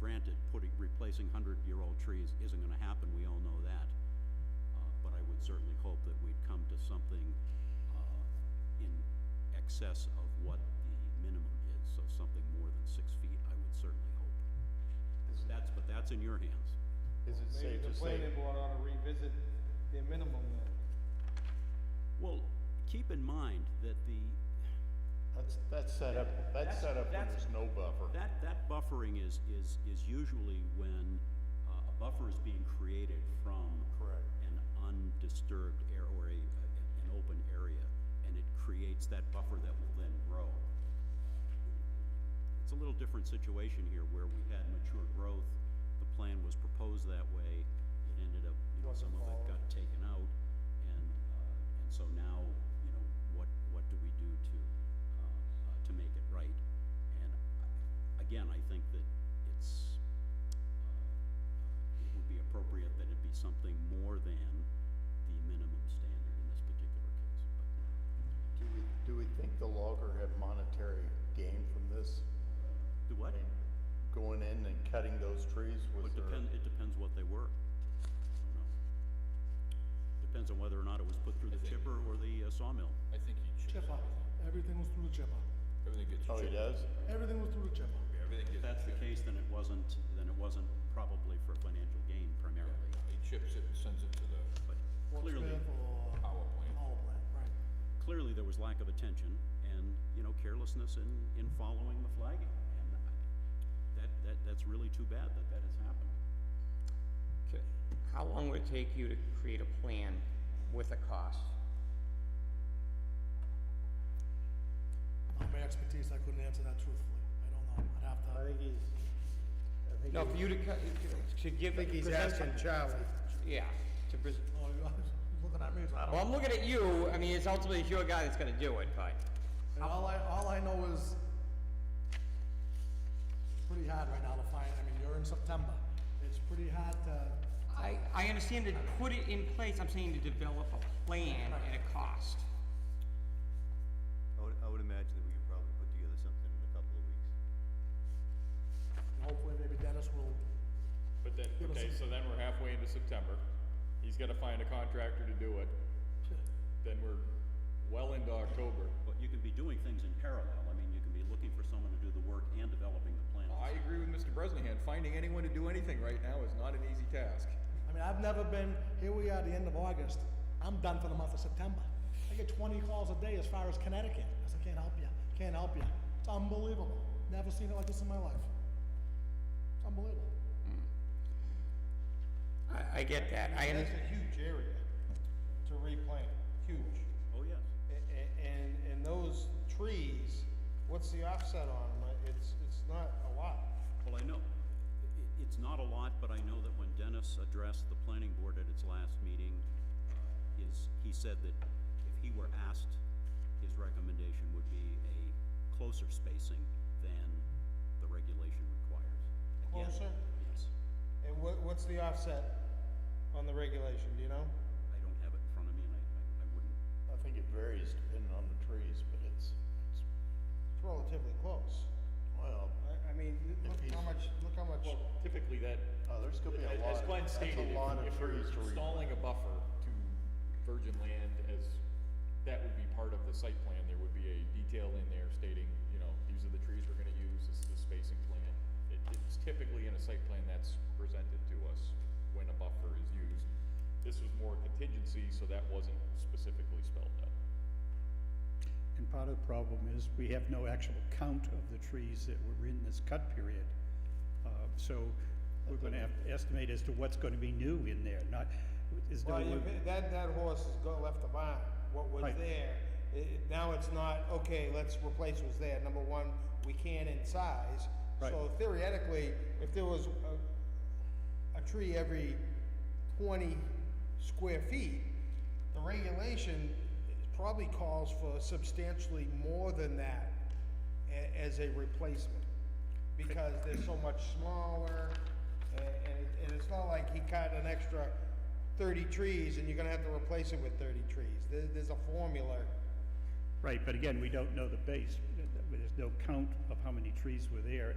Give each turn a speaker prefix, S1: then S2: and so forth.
S1: granted, putting, replacing hundred-year-old trees isn't gonna happen, we all know that. Uh, but I would certainly hope that we'd come to something, uh, in excess of what the minimum is, so something more than six feet, I would certainly hope. That's, but that's in your hands.
S2: Is it
S3: Maybe
S2: safe
S3: the
S2: to say,
S3: planning board ought to revisit their minimum then.
S1: Well, keep in mind that the,
S2: that's, that's set up,
S1: That's-
S2: that's set up when
S1: that's-
S2: there's no buffer?
S1: that, that buffering is, is, is usually when, uh, a buffer is being created from.
S2: Correct.
S1: An undisturbed air, or a, a- an open area, and it creates that buffer that will then grow. It's a little different situation here where we had mature growth, the plan was proposed that way, it ended up, you know, some of it got taken out, and, uh, and so now, you know, what, what do we do to, uh, uh, to make it right? And I- again, I think that it's, uh, it would be appropriate that it be something more than the minimum standard in this particular case, but.
S2: Do we, do we think the logger had monetary gain from this?
S1: Do
S2: I
S1: what?
S2: mean, going in and cutting those trees, was
S1: It
S2: there?
S1: depends, it depends what they were. I don't know. Depends on whether or not it was put through the chipper or the uh, sawmill.
S4: I think he chips
S5: Chipper, everything was through the chipper.
S4: Everything gets
S2: Oh,
S4: chipped.
S2: he does?
S5: Everything was through the chipper.
S4: Everything
S1: If
S4: gets
S1: that's the
S4: chipped.
S1: case, then it wasn't, then it wasn't probably for financial gain primarily,
S4: He chips it and sends it to the
S1: but clearly,
S5: Fox Pit or
S4: power plant.
S5: Power plant, right.
S1: clearly there was lack of attention and, you know, carelessness in, in following the flagging. And I- that, that, that's really too bad that that has happened.
S6: So, How long would it take you to create a plan with a cost?
S5: Not my expertise, I couldn't answer that truthfully. I don't know, I'd have
S3: I
S5: to,
S3: think he's, I think,
S6: No, for
S3: he-
S6: you to, cut- to give.
S3: I think he's
S6: present some-
S3: asking Charlie.
S6: Yeah, to pres-
S5: oh, you're looking at me, so I don't.
S6: well, I'm looking at you, I mean, it's ultimately it's your guy that's gonna do it, but,
S5: And all I, all I know is, it's pretty hard right now to find, I mean, you're in September. It's pretty hard to
S6: I, I understand to put it in place, I'm saying to develop a plan and a cost.
S7: I would, I would imagine that we could probably put together something in a couple of weeks.
S5: And Hopefully, maybe Dennis will,
S8: But then,
S5: Give us
S8: okay,
S5: some-
S8: so then we're halfway into September, he's gotta find a contractor to do it, then we're well into October.
S1: But you can be doing things in parallel. I mean, you can be looking for someone to do the work and developing the plan.
S8: I agree with Mr. Bresnahan, finding anyone to do anything right now is not an easy task.
S5: I mean, I've never been, here we are, the end of August, I'm done for the month of September. I get twenty calls a day as far as Connecticut, I said, can't help you, can't help you. It's unbelievable, never seen it like this in my life. It's unbelievable.
S6: I, I get that, I
S3: That's
S6: understand,
S3: a huge area to replant, huge.
S1: Oh, yes.
S3: A- a- and, and those trees, what's the offset on them? Uh, It's, it's not a lot.
S1: Well, I know, i- it's not a lot, but I know that when Dennis addressed the planning board at its last meeting, uh, is, he said that if he were asked, his recommendation would be a closer spacing than the regulation requires. Again,
S3: Closer?
S1: Yes.
S3: And what, what's the offset on the regulation, do you know?
S1: I don't have it in front of me and I, I- I wouldn't,
S2: I think it varies depending on the trees, but it's, it's,
S3: It's relatively close.
S2: well,
S3: I, I mean, look how much, look how much.
S8: Typically that,
S2: oh, there's gonna be a lot,
S8: as
S2: of-
S8: Glenn
S2: that's
S8: stated,
S2: a lot of
S8: if if you're
S2: trees to re-
S8: installing a buffer to virgin land as, that would be part of the site plan, there would be a detail in there stating, you know, these are the trees we're gonna use, this is the spacing plan. It, it's typically in a site plan that's presented to us when a buffer is used. This was more contingency, so that wasn't specifically spelled out.
S9: And part of the problem is we have no actual count of the trees that were in this cut period. Uh, So we're gonna have to estimate as to what's gonna be new in there, not, is no
S3: Well,
S9: one.
S3: you- that, that horse has got, left the barn, what was
S9: Right.
S3: there, i- i- now it's not, okay, let's replace what's there, number one, we can in size.
S9: Right.
S3: So theoretically, if there was a, a tree every twenty square feet, the regulation probably calls for substantially more than that a- as a replacement. Because they're so much smaller, a- and, it- and it's not like he cut an extra thirty trees and you're gonna have to replace it with thirty trees. There, there's a formula.
S9: Right, but again, we don't know the base, there's no count of how many trees were there